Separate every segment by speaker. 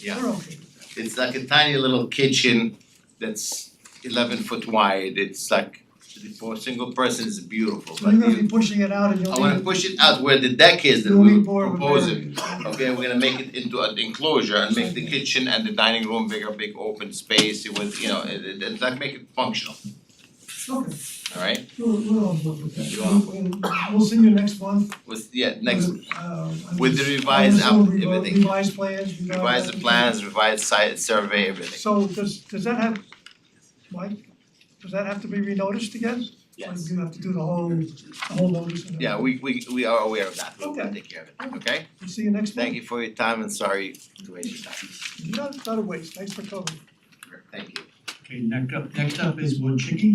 Speaker 1: Yeah.
Speaker 2: We're okay with that.
Speaker 1: It's like a tiny little kitchen that's eleven foot wide, it's like for a single person it's beautiful, but
Speaker 2: You're gonna be
Speaker 1: you
Speaker 2: pushing it out and you'll
Speaker 1: I
Speaker 2: need.
Speaker 1: wanna push it out where the deck is that
Speaker 2: you'll
Speaker 1: we
Speaker 2: need more
Speaker 1: were
Speaker 2: of a
Speaker 1: proposing.
Speaker 2: variance.
Speaker 1: Okay, we're gonna make it into an enclosure and make the kitchen and the dining room bigger, big open space, it was, you know, it it it's like make it functional,
Speaker 2: Okay,
Speaker 1: alright?
Speaker 2: we're we're on board with
Speaker 1: You are.
Speaker 2: that. We'll we'll see you next month.
Speaker 1: With, yeah, next
Speaker 2: with, uh, and
Speaker 1: with the
Speaker 2: just-
Speaker 1: revised
Speaker 2: I'll
Speaker 1: up-
Speaker 2: assume revo-
Speaker 1: everything.
Speaker 2: Revised plans, revised.
Speaker 1: revise the plans, revise site survey, everything,
Speaker 2: So does does that have, Mike, does that have to be renoticed again? Or
Speaker 1: yes.
Speaker 2: do you have to do the whole, the whole notice and
Speaker 1: Yeah,
Speaker 2: everything?
Speaker 1: we we we are aware of that, we'll
Speaker 2: Okay.
Speaker 1: take care of it, okay?
Speaker 2: We'll see you next month.
Speaker 1: Thank you for your time and sorry to waste your time,
Speaker 2: Not not a waste, thanks for coming.
Speaker 1: thank you.
Speaker 3: Okay, next up, next up is Wojcicki.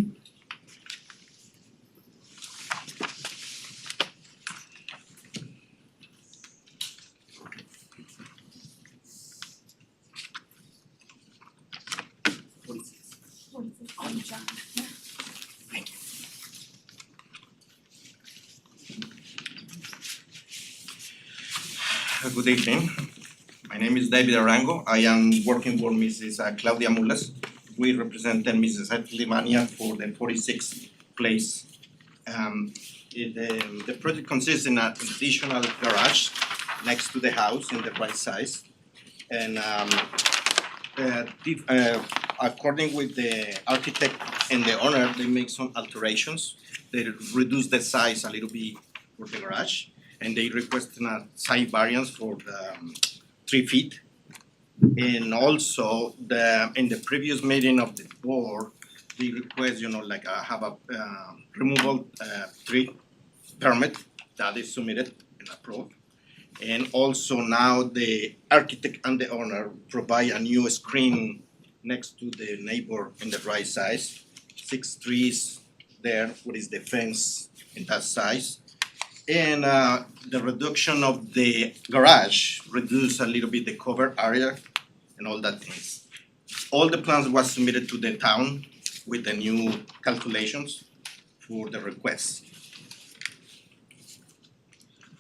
Speaker 4: Good evening. My name is David Arango. I am working for Mrs. Claudia Mulas. We represent Mrs. Atlimania for the 46th place. Um, it, um, the project consists in an additional garage next to the house in the right size. And um, uh, dif- uh, according with the architect and the owner, they make some alterations. They reduce the size a little bit for the garage and they request a side variance for the um, three feet. And also the, in the previous meeting of the board, they request, you know, like uh, have a um, removal uh, tree permit that is submitted and approved. And also now the architect and the owner provide a new screen next to the neighbor in the right size. Six trees there, what is the fence in that size. And uh the reduction of the garage reduce a little bit the cover area and all that things. All the plans was submitted to the town with the new calculations for the request.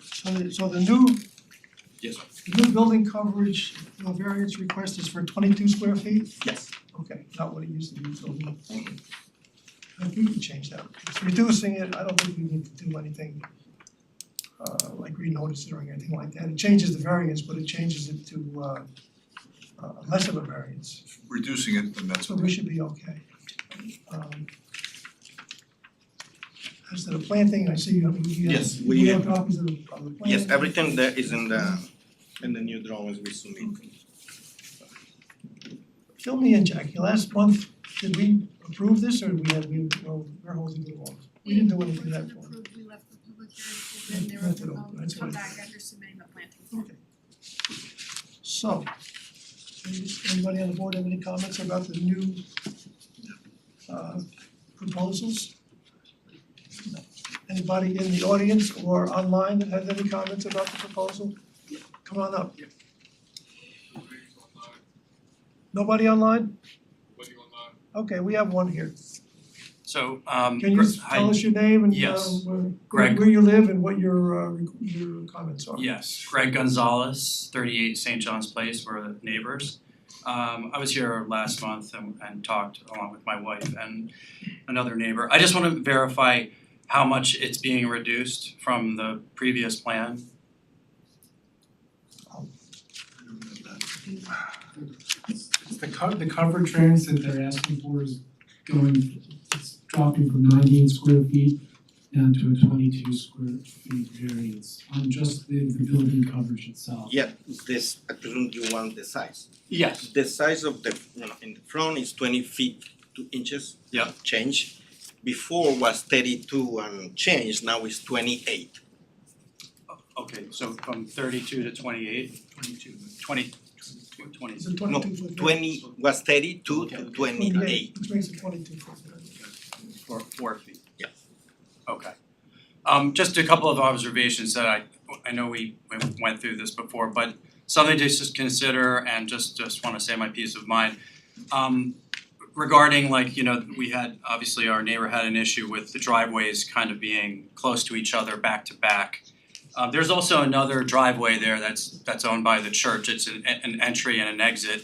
Speaker 2: So the so the new
Speaker 4: Yes, sir.
Speaker 2: The new building coverage, uh, variance request is for twenty-two square feet?
Speaker 4: Yes.
Speaker 2: Okay, not what it used to be, so we, I think we can change that. It's reducing it, I don't think we need to do anything uh, like renotice it or anything like that. It changes the variance, but it changes it to uh, uh, less of a variance,
Speaker 5: reducing it, then that's
Speaker 2: so
Speaker 5: okay.
Speaker 2: we should be okay. Um, As to the planting, I see you have, you have,
Speaker 4: Yes, we-
Speaker 2: you have copies of the, of the plan.
Speaker 4: Yes, everything there is in the in the new drawings we submit.
Speaker 2: Fill me in, Jackie, last month, did we approve this or we had, we, well, we're holding it off? We didn't do anything that
Speaker 6: It
Speaker 2: far.
Speaker 6: wasn't approved, we left the public hearing open, they
Speaker 2: Left it
Speaker 6: were
Speaker 2: open,
Speaker 6: um
Speaker 2: that's
Speaker 6: come
Speaker 2: what I
Speaker 6: back after submitting the planting.
Speaker 2: Okay. So, does anybody on the board have any comments about the new uh proposals? No. Anybody in the audience or online that has any comments about the proposal? Come on up. Nobody online? Okay, we have one here.
Speaker 7: So um
Speaker 2: Can you
Speaker 7: Gre-
Speaker 2: s-
Speaker 7: hi-
Speaker 2: tell us your name and uh
Speaker 7: Yes.
Speaker 2: where
Speaker 7: Greg.
Speaker 2: where you live and what your uh re- your comments are?
Speaker 7: Yes, Greg Gonzalez, thirty-eight St. John's Place, we're neighbors. Um I was here last month and and talked along with my wife and another neighbor. I just wanna verify how much it's being reduced from the previous plan.
Speaker 8: It's the co- the coverage variance that they're asking for is going, it's dropping from nineteen square feet down to a twenty-two square feet variance on just the the building coverage itself.
Speaker 4: Yeah, this, I presume you want the size.
Speaker 7: Yes.
Speaker 4: The size of the, you know, in the front is twenty feet, two inches.
Speaker 7: Yeah.
Speaker 4: Change. Before was thirty-two and change, now it's twenty-eight.
Speaker 7: Okay, so from thirty-two to twenty-eight? Twenty-two. Twenty, twenty.
Speaker 2: It's a twenty two foot.
Speaker 4: twenty was thirty-two
Speaker 7: Okay.
Speaker 4: to
Speaker 2: Twenty-eight,
Speaker 4: twenty-eight.
Speaker 2: which makes it twenty-two foot.
Speaker 7: Four four feet?
Speaker 4: Yeah.
Speaker 7: Okay. Um just a couple of observations that I I know we we went through this before, but something to just consider and just just wanna say my peace of mind. Um regarding like, you know, we had obviously our neighbor had an issue with the driveways kind of being close to each other back Um, to back. Uh there's also another driveway there that's that's owned by the church, it's an an entry and an exit